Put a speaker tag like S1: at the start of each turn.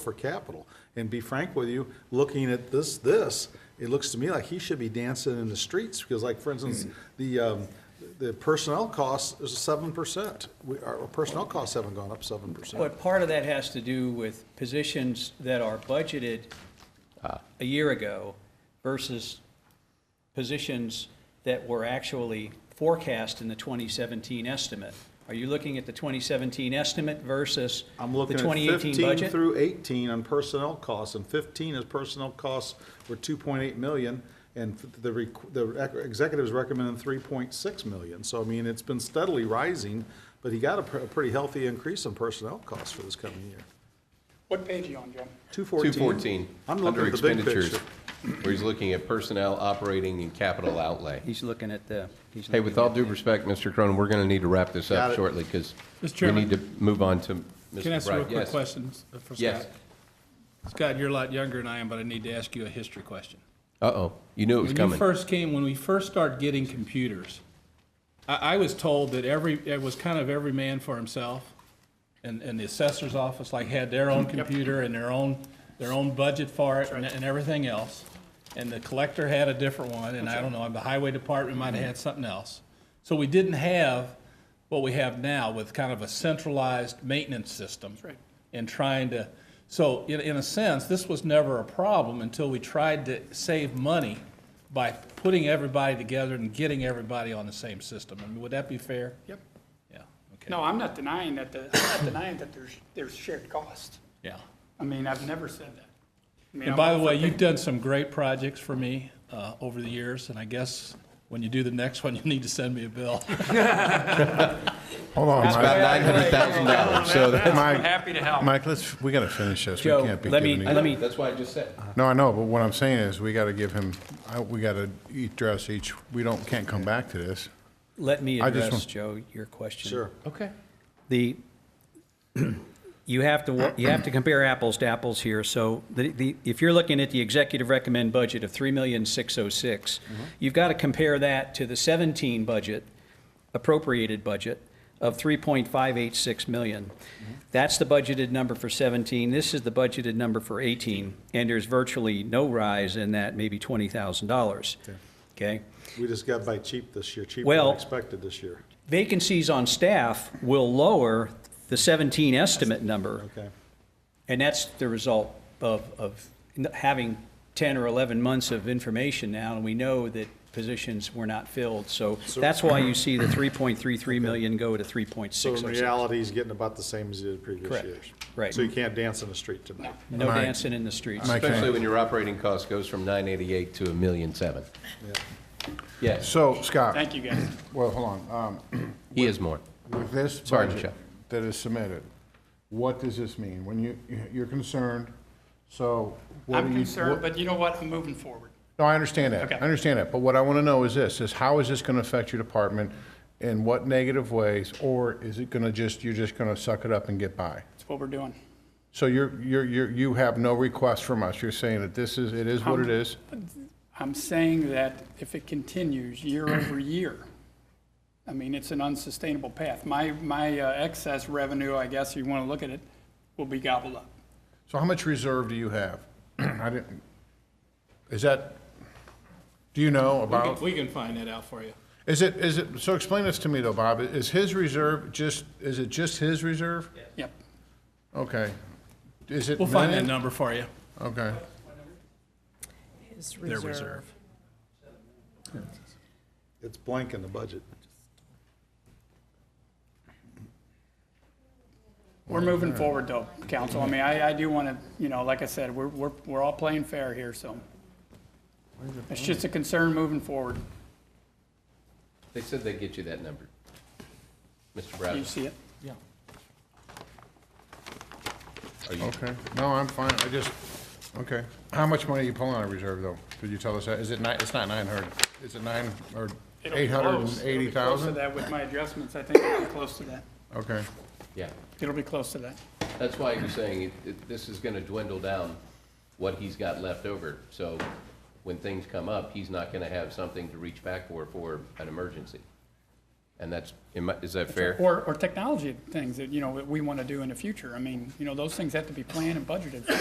S1: for capital. And be frank with you, looking at this, this, it looks to me like he should be dancing in the streets, because like, for instance,
S2: Hmm.
S1: the, um, the personnel cost is seven percent. We, our personnel costs haven't gone up seven percent.
S2: But part of that has to do with positions that are budgeted
S3: Ah.
S2: a year ago versus positions that were actually forecast in the 2017 estimate. Are you looking at the 2017 estimate versus the
S1: I'm looking at
S2: 2018
S1: fifteen
S2: budget?
S1: through eighteen on personnel costs, and fifteen is personnel costs were two point eight million, and the, rec- the rec- executives recommended three point six million. So I mean, it's been steadily rising, but he got a, pr- a pretty healthy increase in personnel costs for this coming year.
S4: What page are you on, Jim?
S1: 214. I'm looking
S3: under
S1: at the big
S3: expenditures,
S1: picture.
S3: where he's looking at personnel, operating, and capital outlay.
S2: He's looking at the. he's
S3: Hey,
S2: looking
S3: with all
S2: at
S3: due
S2: the-
S3: respect, Mr. Cronin, we're going to need to wrap this
S1: Got it.
S3: up shortly because
S5: Mr.
S3: we
S5: Chairman,
S3: need to move on to Mr. Bright.
S5: Can I ask you a quick
S3: Yes.
S5: question for Scott?
S3: Yes.
S5: Scott, you're a lot younger than I am, but I need to ask you a history question.
S3: Uh-oh, you knew it was
S5: When you
S3: coming.
S5: first came, when we first started getting computers, I, I was told that every, it was kind of every man for himself. And, and the assessor's office like had their own computer and their own, their own budget for it and, and everything else. And the collector had a different one, and I don't know, and the highway department might have had something else. So we didn't have what we have now with kind of a centralized maintenance system. That's right. And trying to, so in, in a sense, this was never a problem until we tried to save money by putting everybody together and getting everybody on the same system. I mean, would that be fair?
S4: Yep.
S5: Yeah, okay.
S4: No, I'm not denying that, the- I'm not denying that there's, there's shared cost.
S5: Yeah.
S4: I mean, I've never said that. I mean,
S5: And
S4: I'm
S5: by
S4: all
S5: the way,
S4: for
S5: you've
S4: picking-
S5: done some great projects for me uh, over the years, and I guess when you do the next one, you need to send me a bill.
S6: Hold on,
S3: It's about
S6: Mike.
S3: $900,000, so that's,
S6: Mike,
S4: Happy to help.
S6: Mike, let's, we gotta finish this. We
S2: Joe,
S6: can't be
S2: let me-
S6: giving
S2: let
S6: you.
S2: me-
S3: that's why I just said.
S6: No, I know, but what I'm saying is, we gotta give him, I- we gotta address each, we don't, can't come back to this.
S2: Let me
S6: I just
S2: address,
S6: want-
S2: Joe, your question.
S1: Sure.
S3: Okay.
S2: the, you have to, wa- you have to compare apples to apples here. So the, the, if you're looking at the executive recommend budget of three million six oh six, you've got to compare that to the seventeen budget, appropriated budget of three point five eight six million. That's the budgeted number for seventeen. This is the budgeted number for eighteen. And there's virtually no rise in that, maybe twenty thousand dollars. Okay?
S1: We just got by cheap this year, cheaper
S2: Well-
S1: than expected this year.
S2: Vacancies on staff will lower the seventeen estimate number.
S1: Okay.
S2: And that's the result of, of having 10 or 11 months of information now, and we know that positions were not filled. So that's why you see the 3.33 million go to
S1: So in
S2: 3.606.
S1: reality, he's getting about the same as he did previous
S2: Correct.
S1: years.
S2: Right.
S1: So you can't dance in the street tonight.
S2: No
S6: Mike-
S2: dancing in the streets.
S6: Mike-
S3: Especially when your operating cost goes from 988 to a million seven. Yes,
S6: So, Scott,
S4: Thank you, guys.
S6: well, hold on, um,
S3: he is more.
S6: with this
S3: Sorry,
S6: budget
S3: Michelle.
S6: that is submitted, what does this mean? When you, you're concerned, so what do
S4: I'm
S6: you?
S4: concerned,
S6: what-
S4: but you know what? I'm moving forward.
S6: No, I understand that.
S4: Okay.
S6: I understand that. But what I want to know is this, is how is this going to affect your department? In what negative ways? Or is it going to just, you're just going to suck it up and get by?
S4: That's what we're doing.
S6: So you're, you're, you're, you have no request from us. You're saying that this is, it is what it
S4: Um,
S6: is?
S4: I'm saying that if it continues year over year, I mean, it's an unsustainable path. My, my uh, excess revenue, I guess, if you want to look at it, will be gobbled up.
S6: So how much reserve do you have? I didn't, is that, do you know
S5: We can-
S6: about,
S5: We can find that out for you.
S6: is it, is it, so explain this to me though, Bob. Is his reserve just, is it just his reserve?
S4: Yep.
S6: Okay. Is it
S5: We'll find that
S6: million?
S5: number for you,
S6: Okay.
S7: His
S5: their
S7: reserve.
S5: reserve.
S1: It's blank in the budget.
S4: We're moving forward though, council. I mean, I, I do want to, you know, like I said, we're, we're, we're all playing fair here, so. It's just a concern moving forward.
S3: They said they'd get you that number. Mr.
S4: Do you
S3: Bradley,
S4: see it?
S1: Oh.
S6: Okay, no, I'm fine, I just, okay. How much money are you pulling out of reserve, though? Did you tell us that? Is it nine, it's not nine hundred, is it nine, or
S4: It'll be
S6: eight hundred
S4: close. It'll
S6: and eighty
S4: be close to
S6: thousand?
S4: that with my adjustments. I think it'll be close to that.
S6: Okay,
S3: yeah.
S4: It'll be close to that.
S3: That's why you're saying it- it- this is going to dwindle down what he's got left over. So when things come up, he's not going to have something to reach back for for an emergency. And that's, am I- is that fair?
S4: Or, or technology things that, you know, that we want to do in the future. I mean, you know, those things have to be planned and budgeted for.